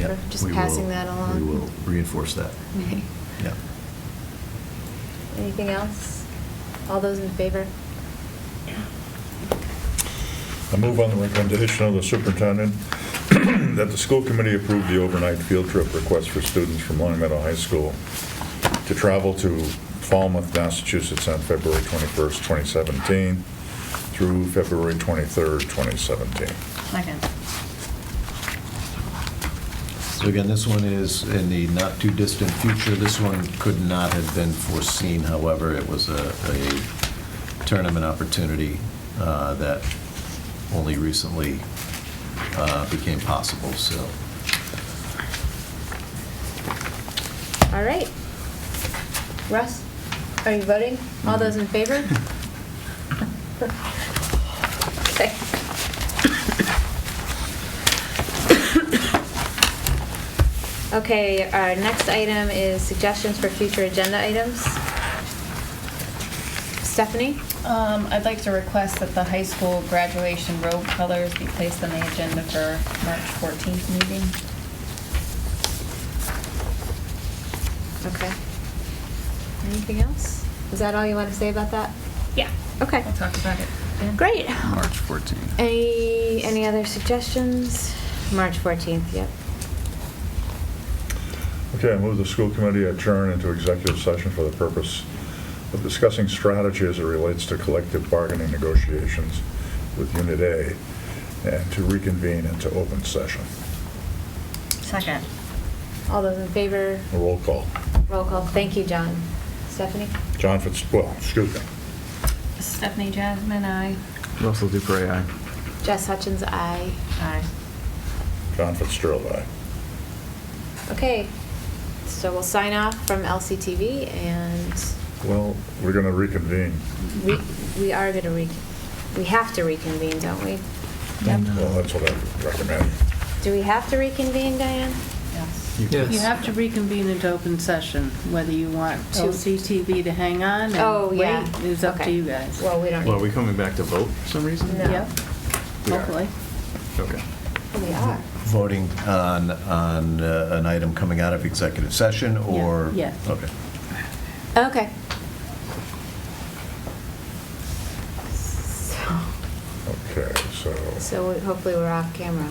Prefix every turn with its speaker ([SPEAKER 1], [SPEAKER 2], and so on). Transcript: [SPEAKER 1] Yeah,
[SPEAKER 2] Just
[SPEAKER 1] we
[SPEAKER 2] passing
[SPEAKER 1] will-
[SPEAKER 2] that along.
[SPEAKER 1] We will reinforce that.
[SPEAKER 2] Okay.
[SPEAKER 1] Yeah.
[SPEAKER 2] Anything else? All those in favor?
[SPEAKER 3] I move on the recommendation of the superintendent that the school committee approve the overnight field trip request for students from Long Meadow High School to travel to Falmouth, Massachusetts on February 21st, 2017 through February 23rd, 2017.
[SPEAKER 4] Second.
[SPEAKER 1] So again, this one is in the not-too-distant future. This one could not have been foreseen, however, it was a a tournament opportunity uh, that only recently uh, became possible, so.
[SPEAKER 2] All right. Russ, are you voting? All those in favor? Okay. Okay, our next item is suggestions for future agenda items. Stephanie?
[SPEAKER 4] Um, I'd like to request that the high school graduation robe colors be placed on the agenda for March 14th meeting.
[SPEAKER 2] Okay. Anything else? Is that all you want to say about that?
[SPEAKER 4] Yeah.
[SPEAKER 2] Okay.
[SPEAKER 4] We'll talk about it. then.
[SPEAKER 2] Great.
[SPEAKER 5] March 14th.
[SPEAKER 2] Any, any other suggestions? March 14th, yep.
[SPEAKER 3] Okay, I move the school committee adjourn into executive session for the purpose of discussing strategy as it relates to collective bargaining negotiations with Unit A and to reconvene into open session.
[SPEAKER 4] Second.
[SPEAKER 2] All those in favor,
[SPEAKER 3] Roll call.
[SPEAKER 2] roll call. Thank you, John. Stephanie?
[SPEAKER 3] John Fitz, well, excuse me.
[SPEAKER 4] Stephanie Jasmine, aye.
[SPEAKER 5] Russell Dupre, aye.
[SPEAKER 2] Jess Hutchins, aye.
[SPEAKER 4] Aye.
[SPEAKER 3] John Fitzgerald, aye.
[SPEAKER 2] Okay, so we'll sign off from LCTV and
[SPEAKER 3] Well, we're going to reconvene.
[SPEAKER 2] we, we are going to re, we have to reconvene, don't we?
[SPEAKER 4] Yep.
[SPEAKER 3] Well, that's what I recommend.
[SPEAKER 2] Do we have to reconvene, Diane?
[SPEAKER 4] Yes.
[SPEAKER 5] Yes.
[SPEAKER 6] You have to reconvene into open session, whether you want
[SPEAKER 2] To-
[SPEAKER 6] OCTV to hang on
[SPEAKER 2] Oh,
[SPEAKER 6] and
[SPEAKER 2] yeah.
[SPEAKER 6] wait, is up to
[SPEAKER 2] Okay.
[SPEAKER 6] you guys.
[SPEAKER 2] Well, we don't.
[SPEAKER 5] Well, are we coming back to vote for some reason?
[SPEAKER 2] No.
[SPEAKER 6] Yep,
[SPEAKER 5] We are.
[SPEAKER 6] hopefully.
[SPEAKER 5] Okay.
[SPEAKER 2] We are.
[SPEAKER 1] Voting on, on uh, an item coming out of executive session, or?
[SPEAKER 6] Yeah.
[SPEAKER 1] Okay.
[SPEAKER 2] Okay. So,
[SPEAKER 3] Okay, so,
[SPEAKER 2] so hopefully we're off camera.